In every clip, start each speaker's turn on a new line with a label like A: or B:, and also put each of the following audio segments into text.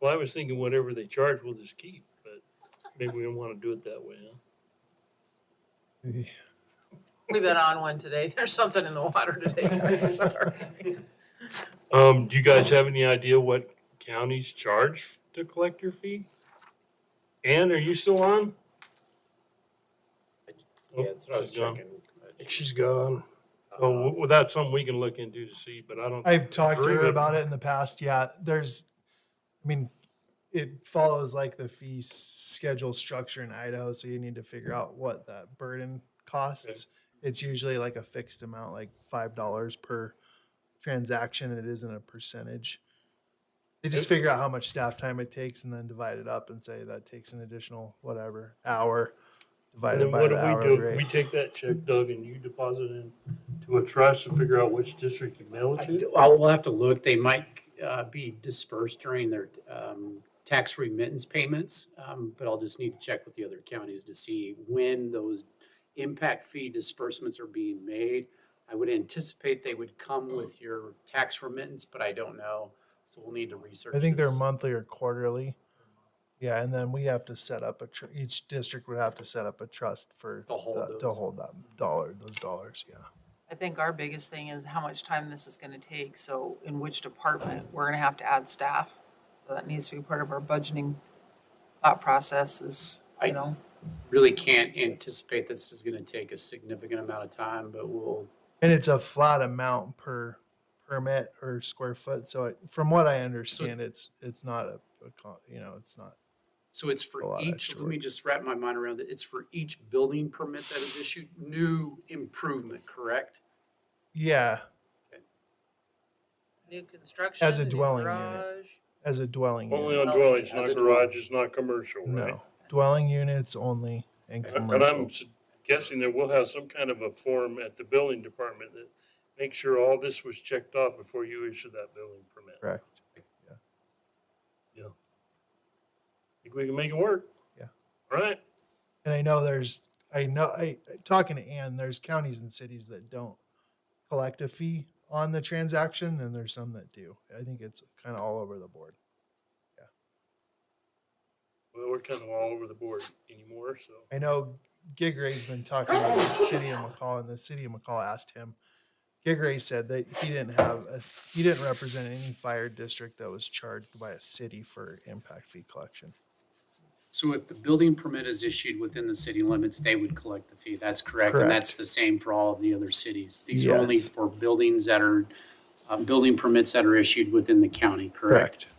A: Well, I was thinking whatever they charge, we'll just keep, but maybe we don't want to do it that way, huh?
B: We've been on one today. There's something in the water today. Sorry.
A: Um, do you guys have any idea what counties charge to collect your fee? Ann, are you still on?
C: Yeah, that's what I was
A: She's gone.
C: checking.
A: She's gone.
C: Uh,
A: Oh, well, that's something we can look into to see, but I don't,
D: I've talked to
A: Very
D: her
A: good.
D: about it in the past. Yeah, there's, I mean, it follows like the fee schedule structure in Idaho, so you need to figure out what that burden costs. It's usually like a fixed amount, like five dollars per transaction. It isn't a percentage. They just
A: Okay.
D: figure out how much staff time it takes and then divide it up and say that takes an additional whatever
A: and
D: hour divided
A: then
D: by
A: what do
D: the
A: we
D: hourly
A: do? We
D: rate.
A: take that check, Doug, and you deposit it to a trust and figure out which district you mail
C: I
A: it
C: d-
A: to?
C: I will have to look. They might uh, be dispersed during their um, tax remittance payments, um, but I'll just need to check with the other counties to see when those impact fee disbursements are being made. I would anticipate they would
D: Hmm.
C: come with your tax remittance, but I don't know. So we'll need to research.
D: I think they're
C: this.
D: monthly or quarterly. Yeah, and then we have to set up a, tr- each district would have to set up a trust for,
C: To hold
D: the- to
C: those.
D: hold that dollar, those dollars, yeah.
B: I think our biggest thing is how much time this is gonna take, so in which department, we're gonna have to add staff. So that needs to be part of our budgeting thought process is,
C: I-
B: you know,
C: Really can't anticipate this is going to take a significant amount of time, but we'll,
D: And it's a flat amount per permit or square foot, so it- from what I understand, it's, it's not a, a con- you know, it's not.
C: So it's
D: a
C: for
D: lot of
C: each,
D: extra
C: let me
D: work.
C: just wrap my mind around it. It's for each building permit that is issued, new improvement, correct?
D: Yeah,
B: new construction.
D: As a
B: new
D: dwelling unit.
B: garage.
D: as a dwelling
A: Only
D: unit,
A: on dwellings,
C: As
A: not
C: a dwelling.
A: garages, not commercial, right?
D: no, dwelling units only and
A: And I'm
D: commercial.
A: s- guessing that we'll have some kind of a form at the building department that makes sure all this was checked off before you issue that building permit.
D: Correct.
A: Yeah. Think we can make it work?
D: Yeah.
A: All right.
D: And I know there's, I know, I, talking to Ann, there's counties and cities that don't collect a fee on the transaction and there's some that do. I think it's kind of all over the board.
A: Well, we're kind of all over the board anymore, so.
D: I know Gig Ray's been talking to the city of McCall and the city of McCall asked him. Gig Ray said that he didn't have, a, he didn't represent any fire district that was charged by a city for impact fee collection.
C: So if the building permit is issued within the city limits, they would collect the fee. That's correct. And that's
D: Correct.
C: the same for all of the other cities. These are only
D: Yes.
C: for buildings that are, um, building permits that are issued within the county, correct?
D: Yep.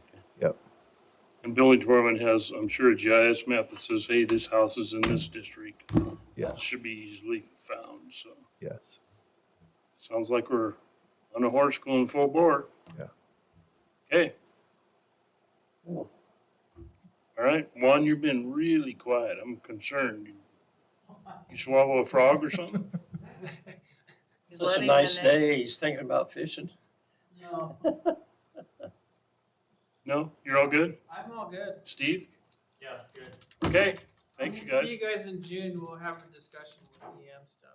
A: And building department has, I'm sure, a GIS map that says, hey, this house is in this district.
D: Yeah.
A: It Should be easily found, so.
D: Yes.
A: Sounds like we're on a horse going full bore.
D: Yeah.
A: Okay. All right, Juan, you've been really quiet. I'm concerned. You swallow a frog or something?
B: He's
E: It's a
B: letting the
E: nice
B: next-
E: day, he's thinking about fishing.
B: No,
A: No? You're all good?
F: I'm all good.
A: Steve?
F: Yeah, good.
A: Okay, thanks, you
F: See
A: guys.
F: you guys in June. We'll have a discussion with EM stuff.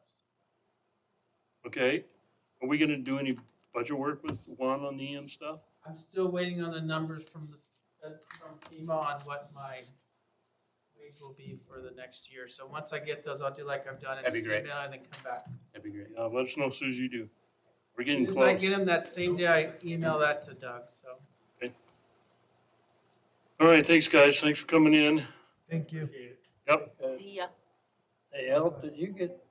A: Okay, are we gonna do any budget work with Juan on the EM stuff?
F: I'm still waiting on the numbers from the, uh, from FEMA on what my wage will be for the next year. So once I get those, I'll do like I've done and
C: That'd be
F: just
C: great.
F: email and then come back.
C: That'd be great.
A: Yeah, let us know as soon as you do. We're getting
F: As soon as I
A: close.
F: get them that same day, I email that to Doug, so.
A: All right, thanks, guys. Thanks for coming in.
D: Thank you.
A: Yep,
B: Yeah.
E: Hey, Al, did you get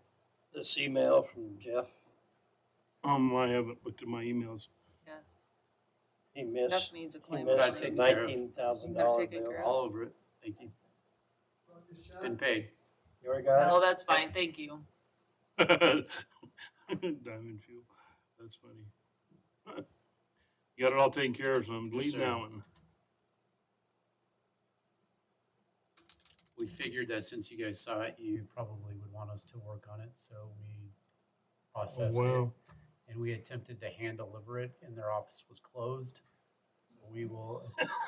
E: this email from Jeff?
A: um, I haven't looked at my emails.
B: Yes.
E: He
B: Jeff
E: missed,
B: needs a
E: he
B: claim.
C: Gotta
E: missed
B: actually.
E: the
C: take care of.
E: nineteen thousand
B: Gotta
E: dollar
B: take it,
E: bill.
B: girl.
C: All over it. Thank you. It's Been paid.
E: You already got it?
B: No, Oh, that's fine. Thank you.
A: Diamond fuel. That's funny. You got it all taken care of, so I'm
C: Yes,
A: leaving
C: sir.
A: that one.
C: We figured that since you guys saw it, you probably would want us to work on it, so we processed it.
A: wow.
C: And we attempted to hand deliver it and their office was closed. So We will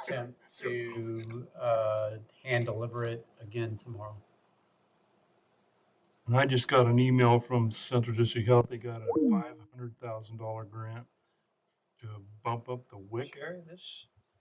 C: attempt to, uh, hand deliver it again tomorrow.
A: And I just got an email from Central District Health. They got a five hundred thousand dollar grant to bump up the WIC.
E: Sherry, this,